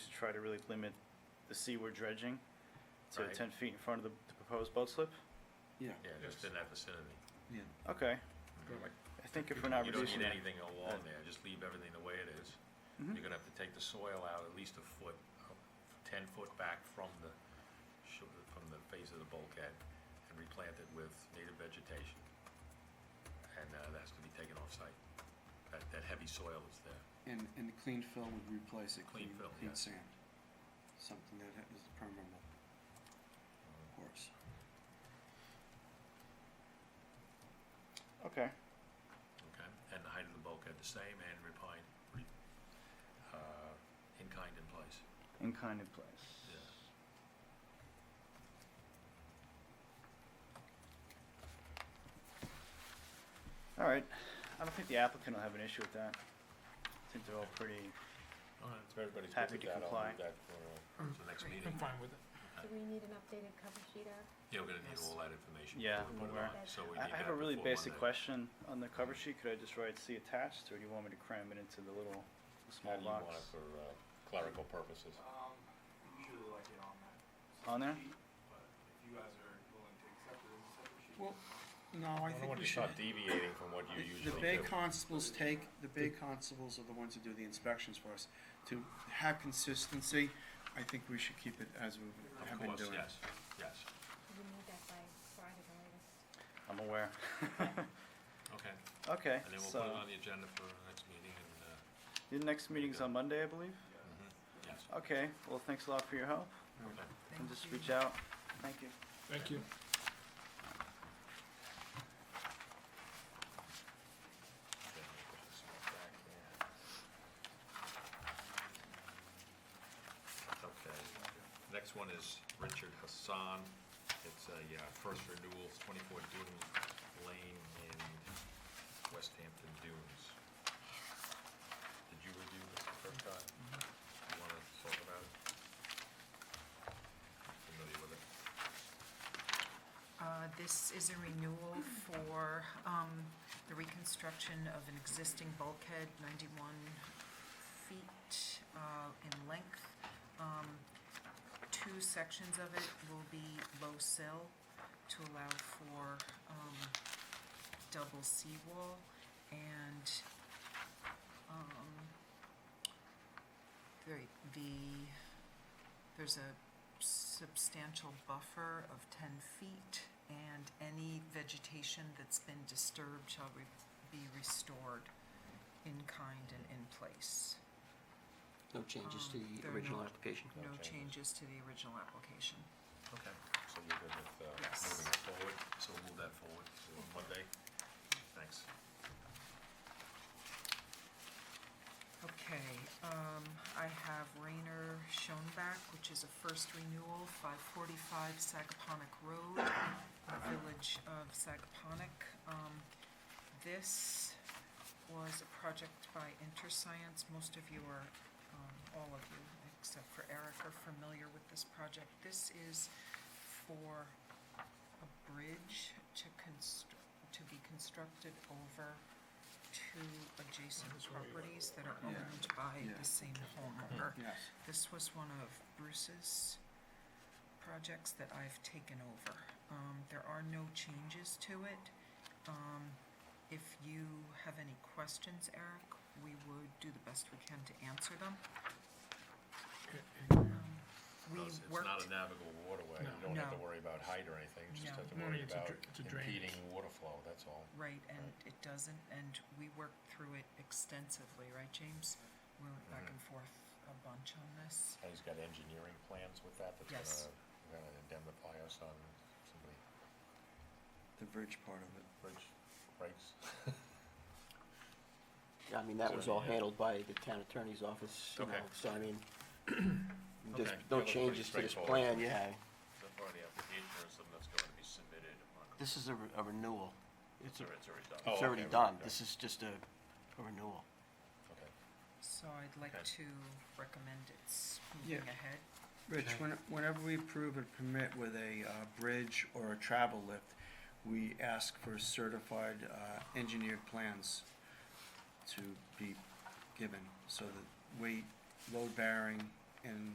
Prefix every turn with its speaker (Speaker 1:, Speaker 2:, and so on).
Speaker 1: try to really limit the seaward dredging to
Speaker 2: Right.
Speaker 1: ten feet in front of the the proposed boat slip?
Speaker 3: Yeah.
Speaker 2: Yeah, just in that vicinity.
Speaker 3: Yeah.
Speaker 1: Okay,
Speaker 3: Perfect.
Speaker 1: I think if we're not
Speaker 2: You don't
Speaker 1: reducing that,
Speaker 2: need anything along there, just leave everything the way it is.
Speaker 1: Mhm.
Speaker 2: You're gonna have to take the soil out at least a foot, uh, ten foot back from the, sho- from the face of the bulkhead and replant it with native vegetation. And uh, that's gonna be taken off-site, that, that heavy soil is there.
Speaker 3: And, and the clean fill would replace it,
Speaker 2: Clean
Speaker 3: clean,
Speaker 2: fill,
Speaker 3: clean
Speaker 2: yes.
Speaker 3: sand. Something that ha- is permeable, of course.
Speaker 1: okay,
Speaker 2: Okay, and the height of the bulkhead the same and repine, re- uh, in kind in place.
Speaker 1: in kind of place.
Speaker 2: Yeah.
Speaker 1: All right, I don't think the applicant will have an issue with that. I think they're all pretty,
Speaker 2: If everybody's
Speaker 1: Happy to comply.
Speaker 2: that for uh, the next meeting.
Speaker 4: I'm fine with it.
Speaker 5: Do we need an updated cover sheet, Eric?
Speaker 2: Yeah, we're gonna need all that information.
Speaker 1: Yeah,
Speaker 2: before we put it
Speaker 1: we're-
Speaker 2: on, So we
Speaker 1: I
Speaker 2: need
Speaker 1: I have a
Speaker 2: that
Speaker 1: really
Speaker 2: before
Speaker 1: basic
Speaker 2: Monday.
Speaker 1: question on the cover sheet, could I just write see attached, or do you want me to cram it into the little small box?
Speaker 2: for uh, clerical purposes?
Speaker 6: Um, usually like it on that.
Speaker 1: On there?
Speaker 6: sheet, But if you guys are willing to accept it as a separate sheet.
Speaker 3: Well, no, I think we should.
Speaker 2: deviating from what
Speaker 3: the- The bay constables take, the bay constables are the ones who do the inspections for us. To have consistency, I think we should keep it as we have
Speaker 2: Of
Speaker 3: been
Speaker 2: course,
Speaker 3: doing.
Speaker 2: yes, yes.
Speaker 5: Do we need that by Friday the latest?
Speaker 1: I'm aware.
Speaker 2: Okay,
Speaker 1: Okay,
Speaker 2: and then we'll
Speaker 1: so,
Speaker 2: put it on the agenda for the next meeting and, uh, mm-hmm,
Speaker 1: the next meeting's on Monday, I believe?
Speaker 2: yes.
Speaker 1: Okay, well, thanks a lot for your help,
Speaker 2: Okay.
Speaker 1: and just reach out. Thank you.
Speaker 4: Thank you.
Speaker 2: Then we'll put this back in. Okay, next one is Richard Hassan. It's a uh, first renewals, 24 Dune Lane in West Hampton Dunes. Did you review this the first time?
Speaker 4: Mm-hmm.
Speaker 2: You want to talk about it? Familiar with it?
Speaker 7: Uh, This is a renewal for um, the reconstruction of an existing bulkhead, 91 feet uh, in length. Um, Two sections of it will be low sill to allow for um, double seawall and um, very- the, there's a substantial buffer of 10 feet, and any vegetation that's been disturbed shall re- be restored in kind and in place.
Speaker 8: No changes to
Speaker 7: Um,
Speaker 8: the
Speaker 7: they're
Speaker 8: original
Speaker 7: not-
Speaker 8: application?
Speaker 2: No
Speaker 7: No
Speaker 2: changes.
Speaker 7: changes to the original application.
Speaker 2: Okay, so you're good with uh,
Speaker 7: Yes.
Speaker 2: moving it forward, so we'll move that forward to Monday. Thanks.
Speaker 7: Okay, um, I have Rayner Schoenbach, which is a first renewal, five forty-five Sagaponack Road, in the Village of Sagaponack. Um, this was a project by InterScience, most of you are, um, all of you, except for Eric, are familiar with this project. This is for a bridge to constr- to be constructed over two adjacent properties that are
Speaker 3: Yeah.
Speaker 7: owned by
Speaker 3: Yeah.
Speaker 7: the same homeowner.
Speaker 3: Yes.
Speaker 7: This was one of Bruce's projects that I've taken over. Um, there are no changes to it. Um, if you have any questions, Eric, we would do the best we can to answer them. Um, We
Speaker 2: No, it's-
Speaker 7: worked.
Speaker 2: It's not a navigable waterway, you
Speaker 4: No.
Speaker 2: don't have to
Speaker 7: No.
Speaker 2: worry about height or anything, you just
Speaker 7: No.
Speaker 2: have to
Speaker 4: No,
Speaker 2: worry
Speaker 4: it's a
Speaker 2: about
Speaker 4: dr- it's a drainage.
Speaker 2: impeding water flow, that's all.
Speaker 7: Right, and it doesn't, and we worked through it extensively, right, James? We went back
Speaker 2: Mhm.
Speaker 7: and forth a bunch on this.
Speaker 2: And he's got engineering plans with that, that's
Speaker 7: Yes.
Speaker 2: gonna, gonna indemnify us on somebody
Speaker 3: The bridge part of it.
Speaker 2: bridge breaks.
Speaker 8: Yeah, I mean, that was all
Speaker 2: Yeah.
Speaker 8: handled by the town attorney's office, you know,
Speaker 2: Okay.
Speaker 8: so I mean, there's
Speaker 2: Okay. That
Speaker 8: no
Speaker 2: looks pretty
Speaker 8: changes to this
Speaker 2: straightforward.
Speaker 8: plan, yeah.
Speaker 2: The part of the application or something that's going to be submitted upon.
Speaker 8: This is a re- a renewal. It's a-
Speaker 2: already done.
Speaker 8: It's already done. This is just a a renewal.
Speaker 2: Okay.
Speaker 7: So I'd like
Speaker 2: Okay.
Speaker 7: to recommend it's
Speaker 3: Yeah.
Speaker 7: moving ahead.
Speaker 3: Rich, when- whenever we approve a permit with a uh, bridge or a travel lift, we ask for certified uh, engineered plans to be given so that weight, load bearing, and